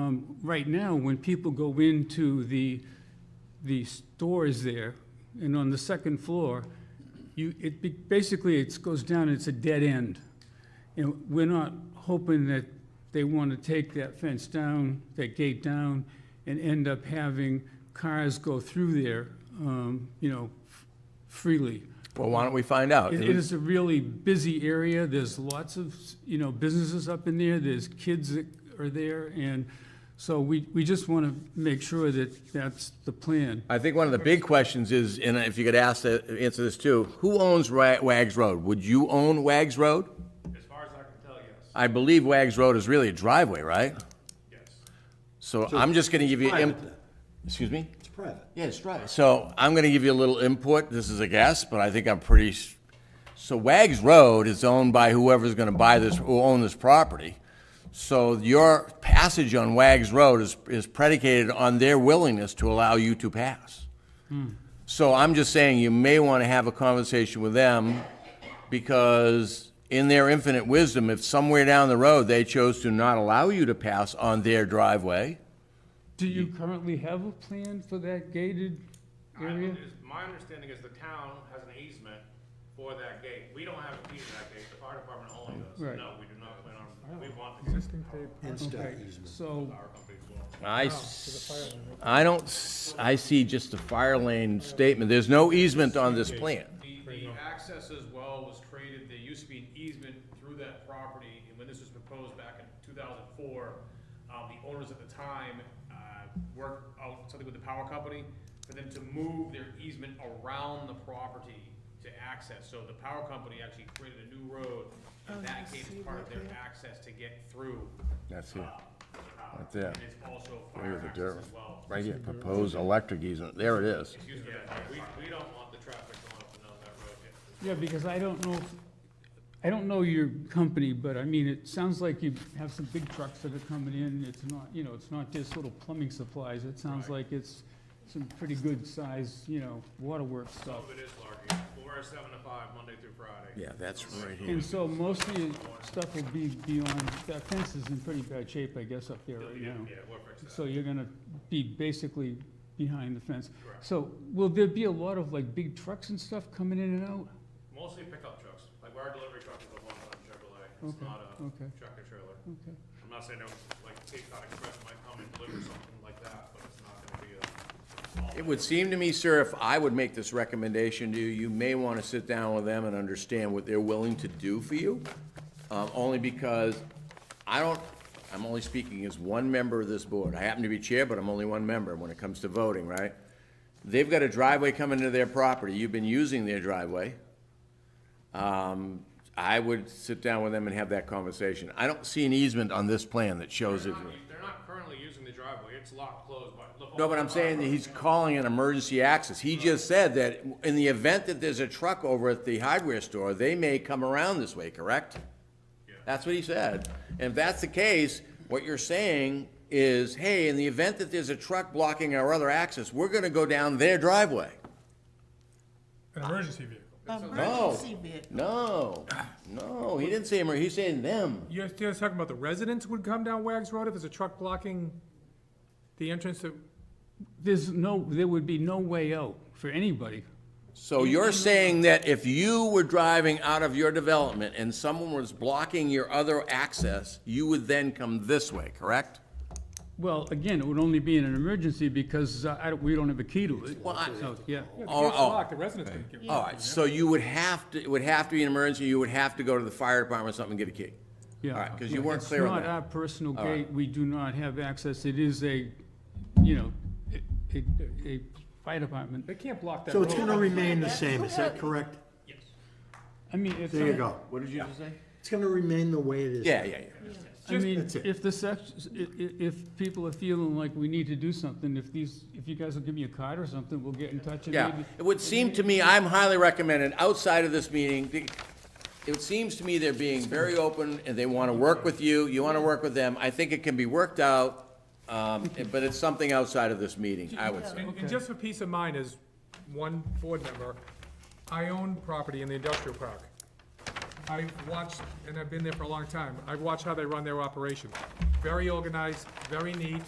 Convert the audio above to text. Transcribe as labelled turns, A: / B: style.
A: um, right now, when people go into the, the stores there, and on the second floor, you, it, be- basically, it goes down, it's a dead end. And we're not hoping that they want to take that fence down, that gate down, and end up having cars go through there, um, you know, f- freely.
B: Well, why don't we find out?
A: It it is a really busy area. There's lots of, you know, businesses up in there. There's kids that are there. And so we, we just want to make sure that that's the plan.
B: I think one of the big questions is, and if you could ask, that- answer this too, who owns Ra- Wags Road? Would you own Wags Road?
C: As far as I can tell, yes,
B: I believe Wags Road is really a driveway, right?
C: yes.
B: So I'm just gonna give you, im-
D: private then.
B: excuse me?
D: It's private.
B: Yeah, it's driveway. So I'm gonna give you a little input, this is a guess, but I think I'm pretty, s- so Wags Road is owned by whoever's gonna buy this, who own this property. So your passage on Wags Road is, is predicated on their willingness to allow you to pass. So I'm just saying you may want to have a conversation with them because in their infinite wisdom, if somewhere down the road they chose to not allow you to pass on their driveway,
A: Do you currently have a plan for that gated
C: I-
A: area?
C: is- My understanding is the town has an easement for that gate. We don't have a key to that gate, the fire department only does.
A: Right.
C: No, we do not plan on, we want existing power,
D: Instead,
A: Okay, So,
C: our company will.
B: I, s- I don't, s- I see just the fire lane statement. There's no easement on this plan.
C: The, the access as well was created, there used to be an easement through that property, and when this was proposed back in two thousand four, um, the owners at the time, uh, worked out something with the power company for them to move their easement around the property to access, so the power company actually created a new road, and that gave part of their access to get through.
B: That's
C: uh,
B: it.
C: the town.
B: Right there.
C: And it's also
B: Here's
C: fire
B: the dirt.
C: access as well.
B: Right here, proposed electric easement. There it is.
C: Excuse me, we, we don't want the traffic going up and down that road, It-
A: yeah, because I don't know, if- I don't know your company, but I mean, it sounds like you have some big trucks that are coming in. It's not, you know, it's not just little plumbing supplies. It sounds like it's some pretty good size, you know, waterworks stuff.
C: It is large, yeah. We're seven to five, Monday through Friday.
B: Yeah, that's right here.
A: And so most of your stuff will be beyond, that fence is in pretty bad shape, I guess, up there right now.
C: Yeah, we'll fix that.
A: So you're gonna be basically behind the fence. So will there be a lot of like big trucks and stuff coming in and out?
C: Mostly pickup trucks, like our delivery truck is a one-ton Chevrolet, it's
A: Okay,
C: not a
A: okay.
C: tractor trailer.
A: Okay.
C: I'm not saying, no, like, Cape Cod Express might come and deliver something like that, but it's not gonna be a. all-
B: It would seem to me, sir, if I would make this recommendation to you, you may want to sit down with them and understand what they're willing to do for you. Um, only because I don't, I'm only speaking as one member of this board. I happen to be chair, but I'm only one member when it comes to voting, right? They've got a driveway coming to their property. You've been using their driveway. Um, I would sit down with them and have that conversation. I don't see an easement on this plan that shows it.
C: They're not- They're not currently using the driveway, it's locked closed, but. the
B: No, but I'm saying that he's calling an emergency access. He just said that in the event that there's a truck over at the hardware store, they may come around this way, correct? That's what he said. And if that's the case, what you're saying is, hey, in the event that there's a truck blocking our other access, we're gonna go down their driveway.
E: An emergency vehicle.
B: No,
F: Emergency vehicle.
B: no, no, he didn't say emer, he's saying them.
E: You're still talking about the residents would come down Wags Road if there's a truck blocking the entrance to,
A: There's no, there would be no way out for anybody.
B: So you're saying that if you were driving out of your development and someone was blocking your other access, you would then come this way, correct?
A: Well, again, it would only be in an emergency because uh, I, don't- we don't have a key to it.
B: Well, I-
A: So, yeah.
E: yeah, the
B: Oh,
E: gate's
B: oh.
E: locked, the residents can get.
B: All right, so you would have to, it would have to be an emergency, you would have to go to the fire department or something and get a key.
A: Yeah.
B: All right, 'cause you weren't
A: It's
B: clear on that.
A: not our personal gate, we do not have access, it is a, you know, a- a, a fire department.
E: They can't block that
D: So it's
E: road.
D: gonna remain the same, is that correct?
A: I mean, if.
D: There you go.
B: What did you just say?
D: It's gonna remain the way it is.
B: Yeah, yeah, yeah.
A: I mean,
D: That's it.
A: if the sex, i- i- if people are feeling like we need to do something, if these, if you guys will give me a card or something, we'll get in touch and
B: Yeah,
A: maybe.
B: it would seem to me, I'm highly recommended, outside of this meeting, the- it seems to me they're being very open and they want to work with you, you want to work with them. I think it can be worked out, um, but it's something outside of this meeting, I would say.
E: And, and just for peace of mind, as one board member, I own property in the industrial park. I watched, and I've been there for a long time, I've watched how they run their operations. very organized, very neat,